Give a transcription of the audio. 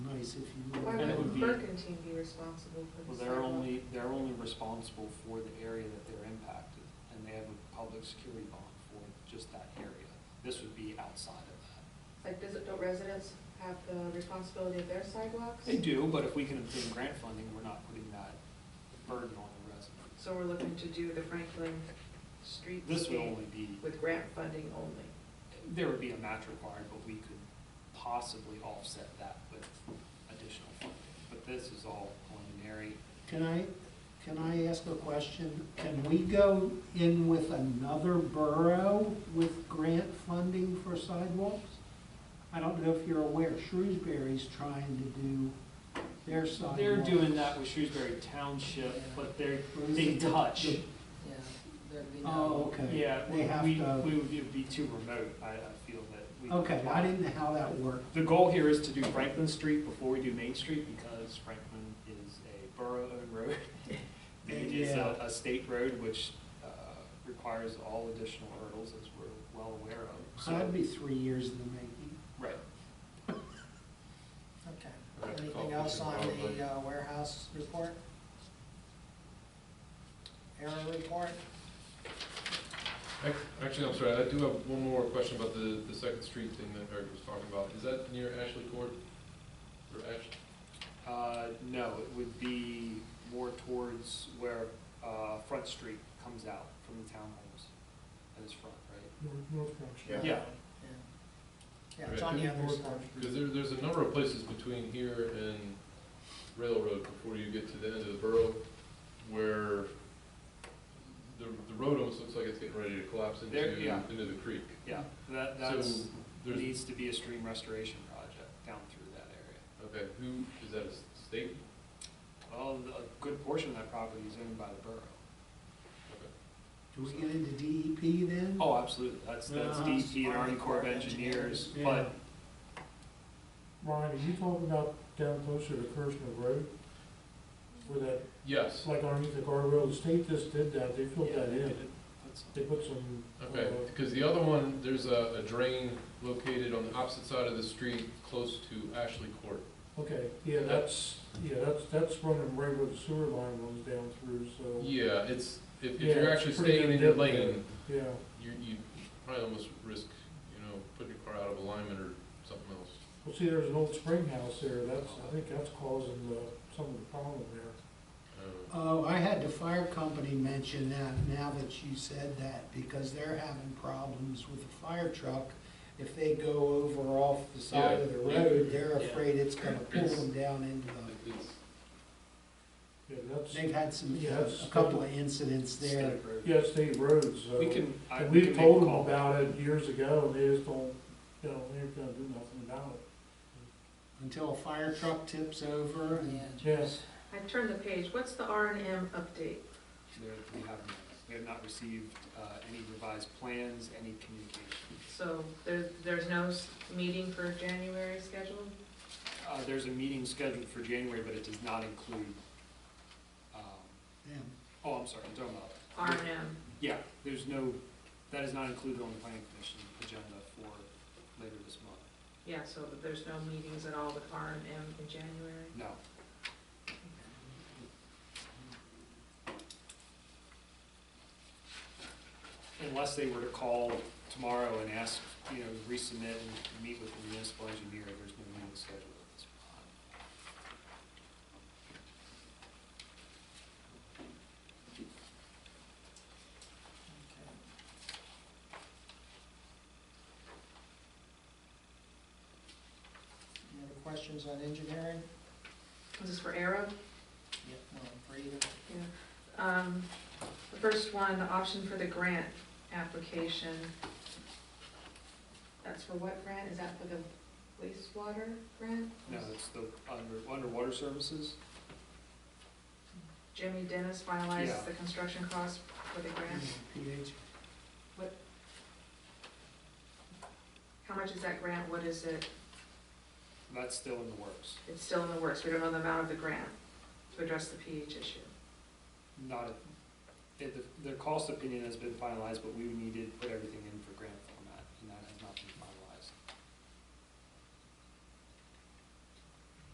basis, if you Why will. And it would would be- Berkantine be responsible for Well, the they're sidewalk? only, they're only responsible for the area that they're impacted, and they have a public security bond for just that area. This would be outside of Like, does, don't residents have the responsibility of their sidewalks? that. They do, but if we can obtain grant funding, we're not putting that burden on the residents. So we're looking to do the Franklin Street This would only be, with grant funding only. there would be a match required, but we could possibly offset that with additional funding. But this is all preliminary. Can I, can I ask a question? Can we go in with another borough with grant funding for sidewalks? I don't know if you're aware, Shrewsbury's trying to do their sidewalks. They're doing that with Shrewsbury Township, but they're, they touch. Yeah, that'd be Oh, no. okay. Yeah, They have we, to- we would be- be too remote, I, I feel that we. Okay, I didn't know how that worked. The goal here is to do Franklin Street before we do Main Street, because Franklin is a borough-owned road. It is a, a state road, which, uh, requires all additional hurdles, as we're well aware of, So that'd so, be three years in the making. right. Okay. Anything else on the uh, warehouse report? Error report? Ac- Actually, I'm sorry, I do have one more question about the, the Second Street thing that Eric was talking about. Is that near Ashley Court? Or Ash, Uh, no, it would be more towards where, uh, Front Street comes out from the townhomes, that is front, right? Yeah. Yeah. Yeah, it's on the other side. because there, there's a number of places between here and Railroad before you get to the end of the borough where the, the road almost looks like it's getting ready to collapse into, There- yeah. into the creek. Yeah, that, So that's, there's, needs to be a stream restoration project down through that area. okay, who, is that a s- state? Well, a good portion of that property is owned by the borough. Okay. Do we get into DEP then? Oh, absolutely, that's, that's Uh-huh. DEP and Army Corps of Engineers, Yeah. but Ryan, are you talking about down closer to Kirshner Road? Where that, Yes, it's like underneath the guardrail, the state just did that, they filled yeah, that they in. did put some- They put some. Okay, uh, because the other one, there's a, a drain located on the opposite side of the street, close to Ashley Court. Okay, yeah, that's, yeah, that's, that's running right where the sewer line runs down through, so, Yeah, it's, if, if Yeah, you're it's actually pretty staying in your good dip lane, yeah. you, you probably almost risk, you know, putting your car out of alignment or something else. Well, see, there's an old spring house there, that's, I think that's causing the, some of the problem there. Uh, Oh, I had the fire company mention that now that you said that, because they're having problems with the fire truck. If they go over off the side of the Yeah. road, they're Yeah. afraid it's gonna pull them down into it- the, It's, Yeah, that's, they've had some, Yes. a couple of incidents there. state road. yeah, state roads, so. We can, I, And we can make we've a told them call. about it years ago, and they just don't, you know, they're gonna do nothing about it. Until a fire truck tips over Yeah. and Yes. I turned the page, what's the R and M update? There- We have, we have not received, uh, any revised plans, any communication. So there, there's no s- meeting for January scheduled? Uh, there's a meeting scheduled for January, but it does not include, um, them. oh, I'm sorry, I'm talking about. R and M, Yeah, there's no, that is not included on the planning commission agenda for later this month. yeah, so there's no meetings at all with R and M in January? No, unless they were to call tomorrow and ask, you know, resubmit and meet with the municipal engineer, there's no meeting scheduled at this time. Any other questions on engineering? This is for Arrow? Yep. No, for either. Um, The first one, the option for the grant application. That's for what grant? Is that for the wastewater grant? No, it's the under, underwater services. Jimmy Dennis Yeah. finalized the construction cost for the grant. PH. How much is that grant? What is it? That's still in the works, It's still in the works. We don't know the amount of the grant to address the pH issue. not, a- it, the, the cost opinion has been finalized, but we would need to put everything in for grant